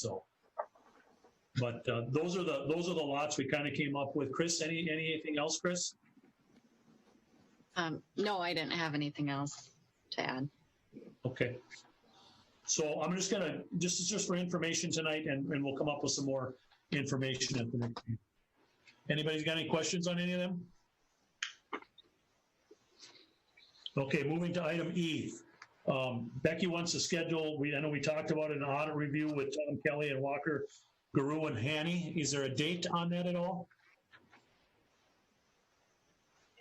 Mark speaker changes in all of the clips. Speaker 1: So. But uh, those are the, those are the lots we kind of came up with. Chris, any, anything else, Chris?
Speaker 2: Um, no, I didn't have anything else to add.
Speaker 1: Okay. So I'm just gonna, this is just for information tonight and, and we'll come up with some more information at the next meeting. Anybody's got any questions on any of them? Okay, moving to item E. Um, Becky wants to schedule, we, I know we talked about an audit review with Tom Kelly and Walker, Guru and Hanny. Is there a date on that at all?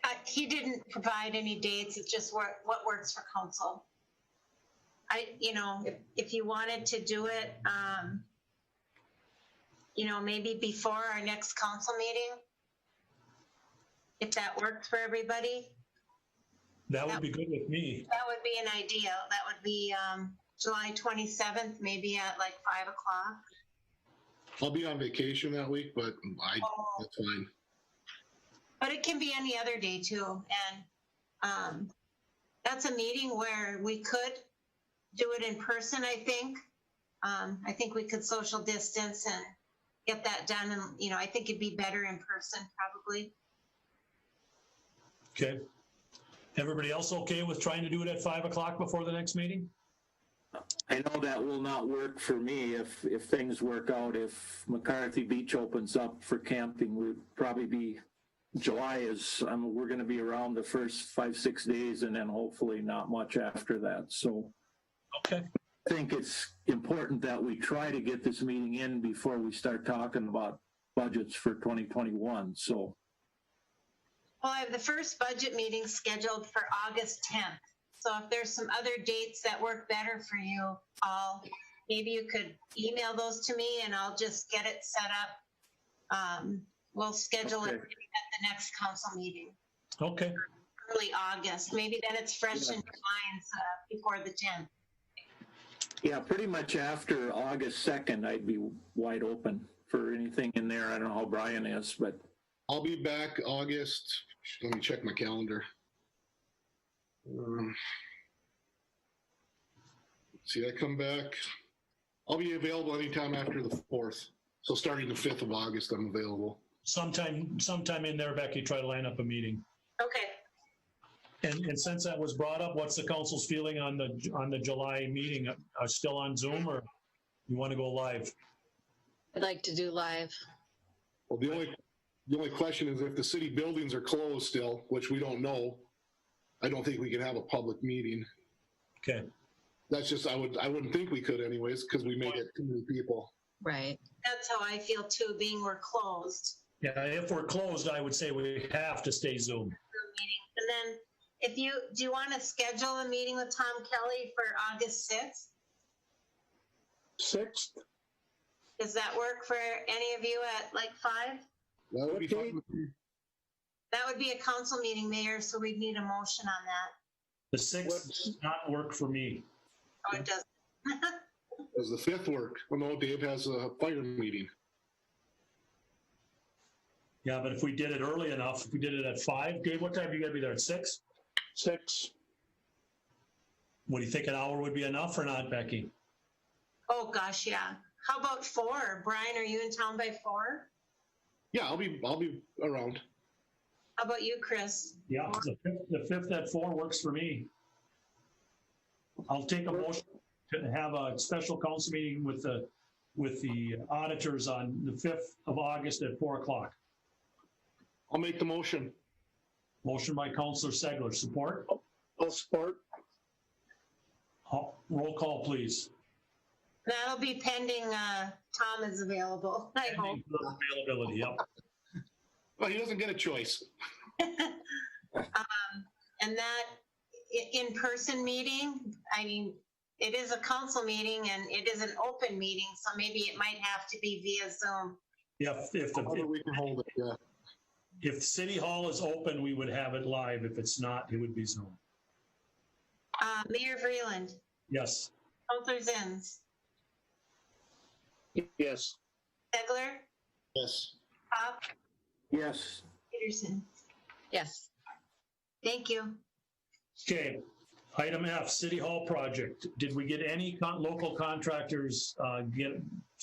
Speaker 3: Uh, He didn't provide any dates, it's just what, what works for council. I, you know, if- if you wanted to do it, um, you know, maybe before our next council meeting, if that works for everybody,
Speaker 1: That would be good with me.
Speaker 3: that would be an idea. That would be um, July 27th, maybe at like 5 o'clock.
Speaker 4: I'll be on vacation that week, but I,
Speaker 3: Oh,
Speaker 4: that's fine.
Speaker 3: But it can be any other day too, and, um, that's a meeting where we could do it in person, I think. Um, I think we could social distance and get that done, and, you know, I think it'd be better in person probably.
Speaker 1: Okay. Everybody else okay with trying to do it at five o'clock before the next meeting?
Speaker 5: I know that will not work for me if, if things work out. If McCarthy Beach opens up for camping, we'd probably be, July is, I mean, we're gonna be around the first five, six days and then hopefully not much after that. So
Speaker 1: Okay.
Speaker 5: I think it's important that we try to get this meeting in before we start talking about budgets for 2021. So
Speaker 3: Well, I have the first budget meeting scheduled for August 10th. So if there's some other dates that work better for you all, maybe you could email those to me and I'll just get it set up. Um, We'll schedule it at
Speaker 5: Okay.
Speaker 3: the next council meeting,
Speaker 1: Okay,
Speaker 3: early August. Maybe then it's fresh in your minds uh, before the 10th.
Speaker 5: yeah, pretty much after August 2nd, I'd be wide open for anything in there. I don't know how Brian is, but
Speaker 4: I'll be back August. Let me check my calendar. Um, See, I come back. I'll be available anytime after the fourth. So starting the fifth of August, I'm available.
Speaker 1: sometime, sometime in there, Becky, try to line up a meeting.
Speaker 3: Okay.
Speaker 1: And, and since that was brought up, what's the council's feeling on the, on the July meeting? Uh, Are still on Zoom or you want to go live?
Speaker 2: I'd like to do live.
Speaker 4: Well, the only, the only question is if the city buildings are closed still, which we don't know, I don't think we can have a public meeting.
Speaker 1: Okay,
Speaker 4: That's just, I would, I wouldn't think we could anyways, because we may get too many people.
Speaker 2: Right.
Speaker 3: That's how I feel too, being we're closed.
Speaker 1: yeah, if we're closed, I would say we have to stay Zoom.
Speaker 3: the meeting. And then if you, do you want to schedule a meeting with Tom Kelly for August 6th?
Speaker 6: Sixth,
Speaker 3: Does that work for any of you at like five?
Speaker 4: That would be fine. with me.
Speaker 3: That would be a council meeting, Mayor, so we'd need a motion on that.
Speaker 1: The sixth does not work for me.
Speaker 3: Oh, it does.
Speaker 4: Does the fifth work? Well, no, Dave has a fire meeting.
Speaker 1: Yeah, but if we did it early enough, if we did it at five, Dave, what time you gotta be there? At six?
Speaker 6: six,
Speaker 1: What do you think an hour would be enough or not, Becky?
Speaker 3: Oh, gosh, yeah. How about four? Brian, are you in town by four?
Speaker 4: Yeah, I'll be, I'll be around.
Speaker 3: How about you, Chris?
Speaker 1: Yeah, the fifth, the fifth at four works for me. I'll take a motion to have a special council meeting with the, with the auditors on the fifth of August at four o'clock.
Speaker 4: I'll make the motion.
Speaker 1: Motion by Counselor Segler, support.
Speaker 6: I'll support.
Speaker 1: Ho- Roll call, please.
Speaker 3: That'll be pending, uh, Tom is available, I hope.
Speaker 1: Availability, yep.
Speaker 4: Well, he doesn't get a choice.
Speaker 3: Um, And that i- in-person meeting, I mean, it is a council meeting and it is an open meeting, so maybe it might have to be via Zoom.
Speaker 1: If, if,
Speaker 4: However
Speaker 1: the
Speaker 4: we can hold it, yeah.
Speaker 1: if City Hall is open, we would have it live. If it's not, it would be Zoom.
Speaker 3: Uh, Mayor Freeland,
Speaker 1: Yes.
Speaker 3: Counselor Zins,
Speaker 6: Yes,
Speaker 3: Segler,
Speaker 4: Yes.
Speaker 3: Pop,
Speaker 5: yes,
Speaker 3: Peterson.
Speaker 2: Yes.
Speaker 3: Thank you.
Speaker 1: Okay. Item F, City Hall project. Did we get any con- local contractors, uh, get,